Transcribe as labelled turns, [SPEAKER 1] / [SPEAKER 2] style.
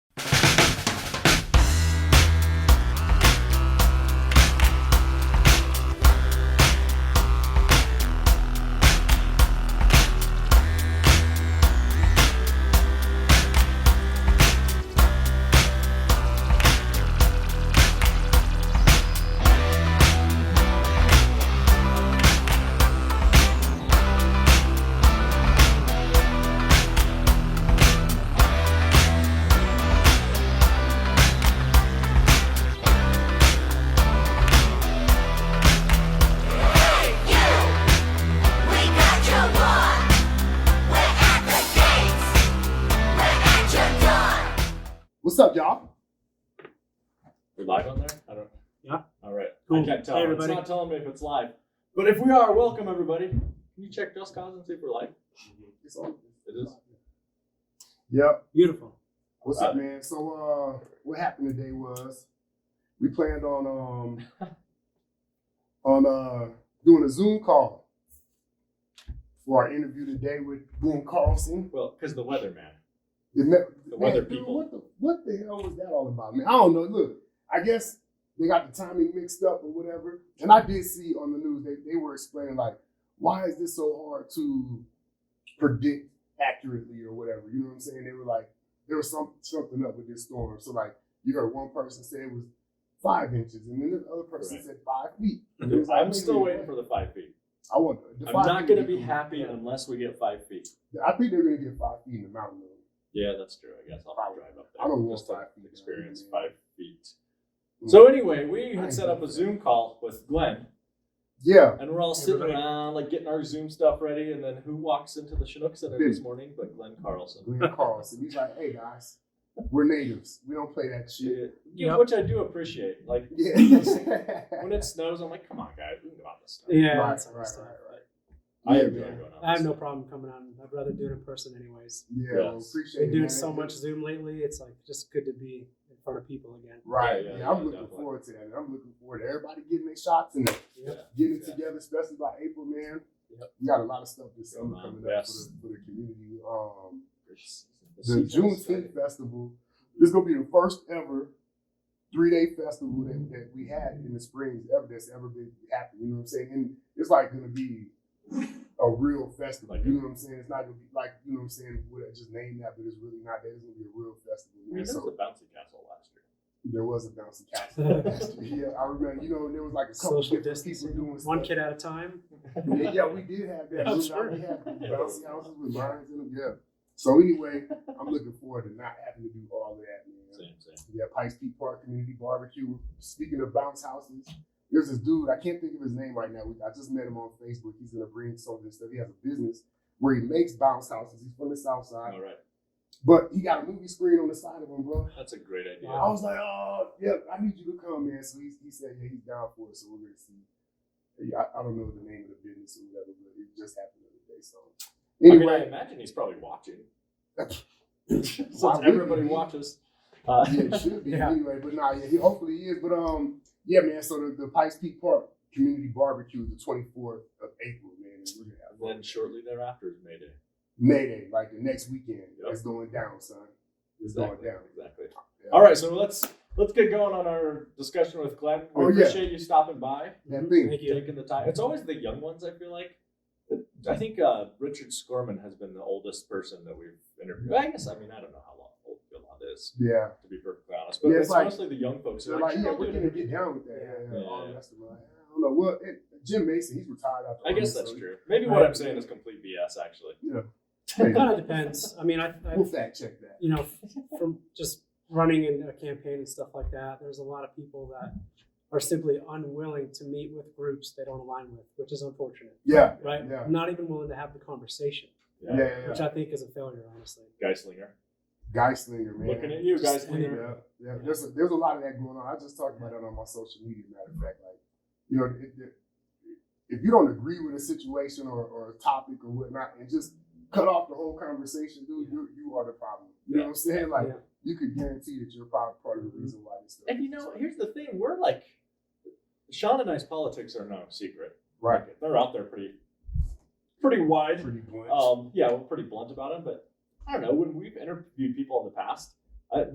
[SPEAKER 1] What's up, y'all?
[SPEAKER 2] We're live on there? I don't.
[SPEAKER 3] Yeah.
[SPEAKER 2] All right.
[SPEAKER 3] Cool.
[SPEAKER 2] I can't tell.
[SPEAKER 3] Hey,
[SPEAKER 2] it's
[SPEAKER 3] everybody.
[SPEAKER 2] not telling me if it's live. But if we are, welcome everybody. Can you check Just Cause and see if we're live?
[SPEAKER 1] It's on.
[SPEAKER 2] It is.
[SPEAKER 1] Yep.
[SPEAKER 3] Beautiful.
[SPEAKER 1] What's up, man? So, uh, what happened today was we planned on um on uh doing a Zoom call for our interview today with Boone Carlson.
[SPEAKER 2] Well, because the weather, man.
[SPEAKER 1] The, ne-
[SPEAKER 2] The weather
[SPEAKER 1] man, dude,
[SPEAKER 2] people.
[SPEAKER 1] what, the, what the hell was that all about, man? I don't know. Look, I guess they got the timing mixed up or whatever. And I did see on the news they, they were explaining like, why is this so hard to predict accurately or whatever? You know what I'm saying? They were like, there was some something up with this storm. So like, you heard one person say it was five inches, and then the other person
[SPEAKER 2] Right.
[SPEAKER 1] said five feet. And it was
[SPEAKER 2] Dude,
[SPEAKER 1] like,
[SPEAKER 2] I'm
[SPEAKER 1] wait
[SPEAKER 2] still
[SPEAKER 1] a
[SPEAKER 2] waiting
[SPEAKER 1] minute,
[SPEAKER 2] for the five feet.
[SPEAKER 1] I want. the
[SPEAKER 2] I'm
[SPEAKER 1] five
[SPEAKER 2] not
[SPEAKER 1] feet
[SPEAKER 2] going to
[SPEAKER 1] would
[SPEAKER 2] be
[SPEAKER 1] cool.
[SPEAKER 2] happy unless we get five feet.
[SPEAKER 1] I think they're gonna get five feet in the mountain. though.
[SPEAKER 2] Yeah, that's true. I guess I'll have to drive up there.
[SPEAKER 1] I don't want
[SPEAKER 2] just to
[SPEAKER 1] five feet,
[SPEAKER 2] experience
[SPEAKER 1] man.
[SPEAKER 2] five feet.
[SPEAKER 1] Mm.
[SPEAKER 2] So anyway, we had set up a Zoom call with Glenn,
[SPEAKER 1] Yeah,
[SPEAKER 2] and we're all sitting
[SPEAKER 3] Everybody.
[SPEAKER 2] around, like getting our Zoom stuff ready. And then who walks into the Chinook Center this morning? But Glenn Carlson.
[SPEAKER 1] Glenn Carlson. He's like, hey guys, we're natives. We don't play that shit.
[SPEAKER 2] Yeah,
[SPEAKER 3] Yep.
[SPEAKER 2] which I do appreciate. Like
[SPEAKER 1] Yeah.
[SPEAKER 2] when it snows, I'm like, come on, guys, we can go out this stuff.
[SPEAKER 3] Yeah.
[SPEAKER 1] right,
[SPEAKER 3] that's
[SPEAKER 1] right, right,
[SPEAKER 3] understandable.
[SPEAKER 1] right.
[SPEAKER 2] I
[SPEAKER 1] Yeah,
[SPEAKER 2] enjoy
[SPEAKER 1] man.
[SPEAKER 2] going out.
[SPEAKER 3] I have
[SPEAKER 2] this
[SPEAKER 3] no
[SPEAKER 2] stuff.
[SPEAKER 3] problem coming on. I'd rather do it in person, anyways.
[SPEAKER 1] Yeah,
[SPEAKER 2] Yeah.
[SPEAKER 1] well, appreciate
[SPEAKER 3] Been
[SPEAKER 1] it,
[SPEAKER 3] doing
[SPEAKER 1] man.
[SPEAKER 3] so much Zoom lately. It's like just good to be in front of people again.
[SPEAKER 1] Right.
[SPEAKER 2] Yeah,
[SPEAKER 1] Yeah,
[SPEAKER 2] yeah,
[SPEAKER 1] I'm
[SPEAKER 2] yeah,
[SPEAKER 1] looking
[SPEAKER 2] definitely.
[SPEAKER 1] forward to that. and I'm looking forward to everybody getting their shots and
[SPEAKER 3] Yep.
[SPEAKER 1] getting it
[SPEAKER 2] Yeah.
[SPEAKER 1] together, especially by April, man.
[SPEAKER 2] Yep.
[SPEAKER 1] We got a lot of stuff this
[SPEAKER 2] Going
[SPEAKER 1] summer
[SPEAKER 2] on,
[SPEAKER 1] coming up for
[SPEAKER 2] yes.
[SPEAKER 1] the, for the community. Um,
[SPEAKER 2] It's- it's
[SPEAKER 1] the
[SPEAKER 2] season's
[SPEAKER 1] Juneteenth Festival. This is gonna be the first ever three day festival that, that we had in the Springs ever that's ever been happening. You know what I'm saying? And it's like gonna be a real festival.
[SPEAKER 2] Like
[SPEAKER 1] you
[SPEAKER 2] a-
[SPEAKER 1] know what I'm saying? It's not gonna be like you know what I'm saying. Would I just name that, but it's really not. That it's gonna be a real festival.
[SPEAKER 2] I mean,
[SPEAKER 1] man.
[SPEAKER 2] there was
[SPEAKER 1] So
[SPEAKER 2] a bouncy castle last year.
[SPEAKER 1] there was a bouncy castle. yeah, I remember. You know, there was like a couple
[SPEAKER 3] Social
[SPEAKER 1] different people
[SPEAKER 3] distancing,
[SPEAKER 1] doing
[SPEAKER 3] one
[SPEAKER 1] stuff.
[SPEAKER 3] kid at a time.
[SPEAKER 1] Yeah, yeah, we did have that.
[SPEAKER 3] I'm
[SPEAKER 1] We-
[SPEAKER 3] sure.
[SPEAKER 1] We had bouncy houses with lions in them. Yeah. So anyway, I'm looking forward to not having to do all of that, man.
[SPEAKER 2] Same, same.
[SPEAKER 1] We got Pikes Peak Park Community Barbecue. Speaking of bounce houses, there's this dude, I can't think of his name right now. We- I just met him on Facebook. He's gonna bring some of this stuff. He has a business where he makes bounce houses. He's from the South Side.
[SPEAKER 2] All right,
[SPEAKER 1] But he got a movie screen on the side of him, bro.
[SPEAKER 2] that's a great idea.
[SPEAKER 1] I was like, oh, yep, I need you to come, man. So he, he said, yeah, he's down for it. So we're going to see. Yeah, I, I don't know the name of the business or whatever, but it just happened the other day. So
[SPEAKER 2] I mean, I
[SPEAKER 1] anyway,
[SPEAKER 2] imagine he's probably watching. Since
[SPEAKER 1] Why wouldn't
[SPEAKER 2] everybody
[SPEAKER 1] he?
[SPEAKER 2] watches. Uh,
[SPEAKER 1] yeah, it should be
[SPEAKER 3] Yeah.
[SPEAKER 1] anyway. But nah, yeah, he hopefully he is. But um, yeah, man. So the, the Pikes Peak Park Community Barbecue is the 24th of April, man. And we're
[SPEAKER 2] and
[SPEAKER 1] gonna have
[SPEAKER 2] then shortly thereafter is May Day.
[SPEAKER 1] May Day, like the next weekend.
[SPEAKER 2] Yep.
[SPEAKER 1] It's going down, son. It's
[SPEAKER 2] Exactly.
[SPEAKER 1] going down.
[SPEAKER 2] Exactly.
[SPEAKER 1] Yeah.
[SPEAKER 2] All right, so let's let's get going on our discussion with Glenn. We
[SPEAKER 1] Oh, yeah.
[SPEAKER 2] appreciate you stopping by.
[SPEAKER 1] That
[SPEAKER 3] Mhm.
[SPEAKER 1] thing.
[SPEAKER 3] Thank you.
[SPEAKER 2] taking the time. It's always the young ones. I feel like. I think uh, Richard Scorman has been the oldest person that we've interviewed. I guess I mean I don't know how long old Gilad is
[SPEAKER 1] Yeah.
[SPEAKER 2] to be perfectly honest, but
[SPEAKER 1] Yeah, it's
[SPEAKER 2] it's,
[SPEAKER 1] like-
[SPEAKER 2] mostly the young folks.
[SPEAKER 1] So
[SPEAKER 2] who are
[SPEAKER 1] like,
[SPEAKER 2] like,
[SPEAKER 1] yeah,
[SPEAKER 2] "Sure,
[SPEAKER 1] we're
[SPEAKER 2] I'll do
[SPEAKER 1] gonna
[SPEAKER 2] it."
[SPEAKER 1] get down with that. Yeah, yeah, yeah. All the
[SPEAKER 2] Yeah.
[SPEAKER 1] rest of them, like, I don't know. Well, it, Jim Mason, he's retired after.
[SPEAKER 2] I guess
[SPEAKER 1] all,
[SPEAKER 2] that's
[SPEAKER 1] so
[SPEAKER 2] true. Maybe what I'm saying is complete BS. Actually,
[SPEAKER 3] It kind of depends. I mean, I, I
[SPEAKER 1] We'll fact check that.
[SPEAKER 3] you know, from just running in a campaign and stuff like that, there's a lot of people that are simply unwilling to meet with groups they don't align with, which is unfortunate,
[SPEAKER 1] Yeah.
[SPEAKER 3] right?
[SPEAKER 1] Yeah.
[SPEAKER 3] Not even willing to have the conversation,
[SPEAKER 1] Yeah. yeah, yeah.
[SPEAKER 3] which I think is a failure, honestly.
[SPEAKER 2] Geislinger,
[SPEAKER 1] Geislinger, man.
[SPEAKER 2] looking at you,
[SPEAKER 3] Just-
[SPEAKER 2] Geislinger.
[SPEAKER 1] Yeah, yeah. There's a, there's a lot of that going on. I just talked about that on my social media. Matter of fact, like you know, it, it, if you don't agree with a situation or, or a topic or whatnot, and just cut off the whole conversation, dude, you you are the problem. You know what I'm saying? Like
[SPEAKER 3] Yeah.
[SPEAKER 1] you could guarantee that you're probably part of the reason why this stuff.
[SPEAKER 2] And you know, here's the thing: we're like, Sean and I's politics are no secret.
[SPEAKER 1] right,
[SPEAKER 2] They're out there pretty, pretty wide.
[SPEAKER 1] pretty blunt.
[SPEAKER 2] Oh, Um, yeah, we're pretty blunt about it, but I don't know. When we've interviewed people in the past,